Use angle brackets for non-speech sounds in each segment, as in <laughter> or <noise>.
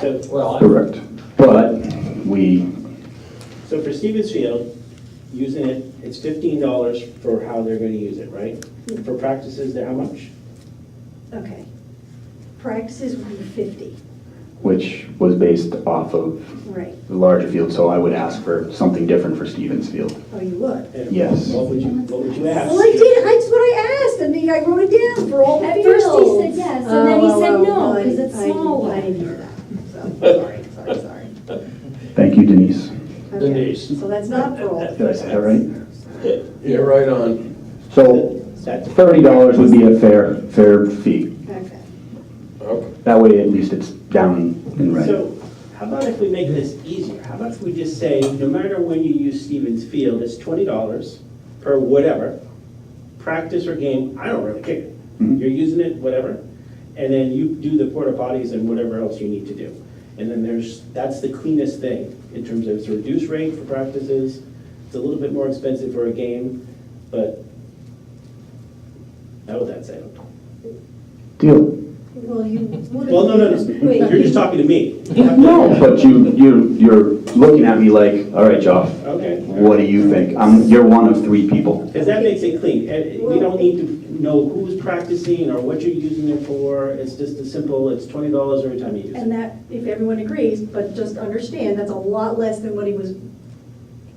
So, Well, I- Correct. But we, so for Stevens Field, using it, it's fifteen dollars for how they're gonna use it, right? For practices, they're how much? Okay. Practices would be 50, which was based off of right. the larger field, so I would ask for something different for Stevens Field. Oh, you would. And Yes. What would you, what would you ask? Well, I did, that's what I asked, I mean, I wrote it down for all the At fields. first he said yes, and then he Oh, said well, no, well, 'cause I- it's I- small. I didn't hear <laughs> that, so, sorry, sorry, sorry. Thank you, Denise. Okay. Denise. So that's not for <laughs> all the fields. Did I say that right? Yeah, right on. So That's thirty dollars would be a fair, fair fee. Okay. Okay. That way, at least it's down in red. So how about if we make this easier? How about if we just say, no matter when you use Stevens Field, it's twenty dollars per whatever, practice or game, I don't really care. Mhm. You're using it, whatever, and then you do the porta potties and whatever else you need to do. And then there's, that's the cleanest thing in terms of it's a reduced rate for practices, it's a little bit more expensive for a game, but how would that sound? Deal. Well, you would. Well, no, no, no, Wait. you're just talking to me. No, but you, you, you're looking at me like, all right, Joff, Okay. what do you think? I'm, you're one of three people. Because that makes it clean. And We don't need to know who's practicing or what you're using it for. It's just as simple, it's twenty dollars every time you use it. And that, if everyone agrees, but just understand, that's a lot less than what he was,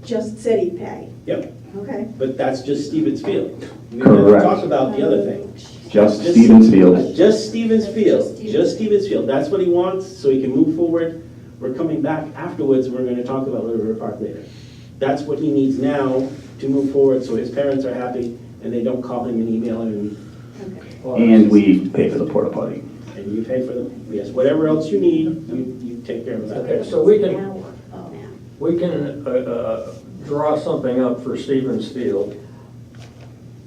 just said he'd pay, Yep, okay? but that's just Stevens Field. We haven't Correct. talked about the Um, other thing. Just Just- Stevens Field. Just Stevens Just Field, Stevens. just Stevens Field. That's what he wants, so he can move forward. We're coming back afterwards, we're gonna talk about Little River Park later. That's what he needs now to move forward, so his parents are happy and they don't call him and email him and Okay. And we pay for the porta potty. And you pay for them, yes, whatever else you need, you, you take care of that. Okay, so we can- An hour Oh, now. We can uh, uh, draw something up for Stevens Field.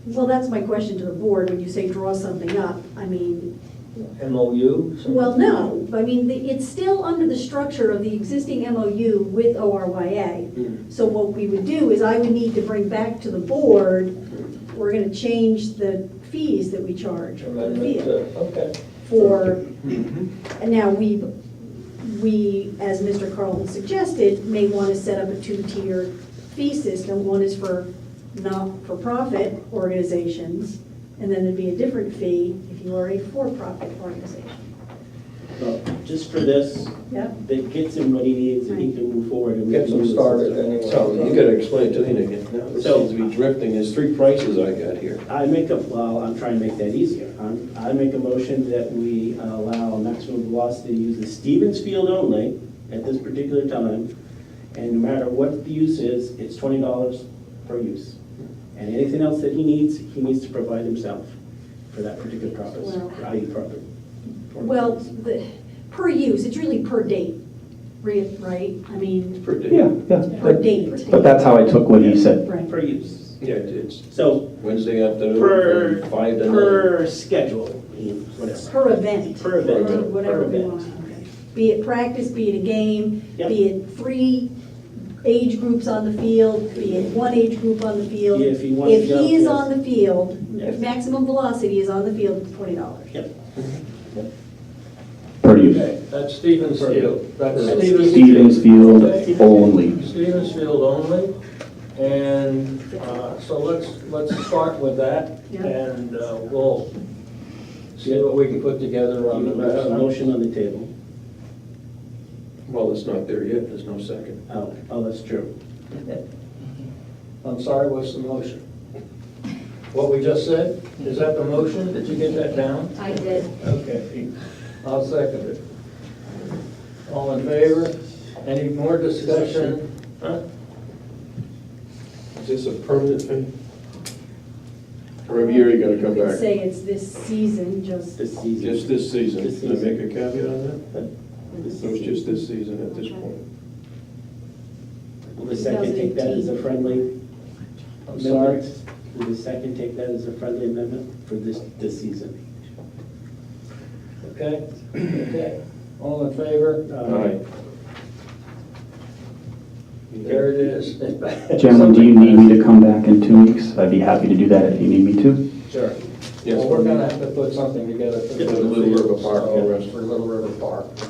Well, that's my question to the board, when you say draw something up, I mean, MOU? something? well, no, I mean, the- it's still under the structure of the existing MOU with ORYA. Mm. So what we would do is I would need to bring back to the board, we're gonna change the fees that we charge for the Amendment, field uh, okay. for, Mm-hmm. and now we, we, as Mr. Carlton suggested, may wanna set up a two-tier fee system. One is for not-for-profit organizations, and then there'd be a different fee if you are a for-profit organization. So, Just for this, Yeah. that gets him what he needs and he can move forward. and we Get can them use this started stuff. anyway. So you gotta explain it to me again. Now, this So- seems to be drifting. There's three prices I got here. I make a, well, I'm trying to make that easier. I'm, I make a motion that we allow maximum velocity to use the Stevens Field only at this particular time. And no matter what the use is, it's twenty dollars per use. And anything else that he needs, he needs to provide himself for that particular purpose, Well- for IU property. Well, the, per use, it's really per date, re- right? I mean, Per day. Yeah, yeah. per But- date, But that's how I took what he said. right? Per use. Yeah, it's So Wednesday afternoon, per, from five to nine. per schedule, whatever. Per event. Per event. Or Whatever Per we event. want. okay. Be it practice, be it a game, Yep. be it three age groups on the field, be it one age group on the field. If he wants to go, is yes. on the field, if Yes. maximum velocity is on the field, it's twenty dollars. Yep. Per use. Okay, that's Stevens Field. That's Perfect. Stevens Field. Stevens Field only. Stevens Field only. And uh, so let's, let's start with that. Yeah. And uh, we'll see what we can put together on the You have a rest. motion on the table. Well, it's not there yet. There's no second. Oh, oh, that's true. I'm sorry, what's the motion? What we just said, is that the motion? Did you get that down? I did. Okay, I'll second it. All in favor? Any more discussion? Huh? Is this a permanent thing? Or every year you gotta come You could back? say it's this season, just. This season. Just this season. This Can I season. make a caveat on that? So it's just this season at this point. Will the second take that as a friendly I'm sorry. amendment? Will the second take that as a friendly amendment for this, this season? Okay, okay. All in favor? Uh, There it is. Gentlemen, do you need me to come back in two weeks? I'd be happy to do that if you need me to. Sure. Yes. Well, we're gonna have to put something together for Yeah, for Little River Park, so- yeah. For Little River Park.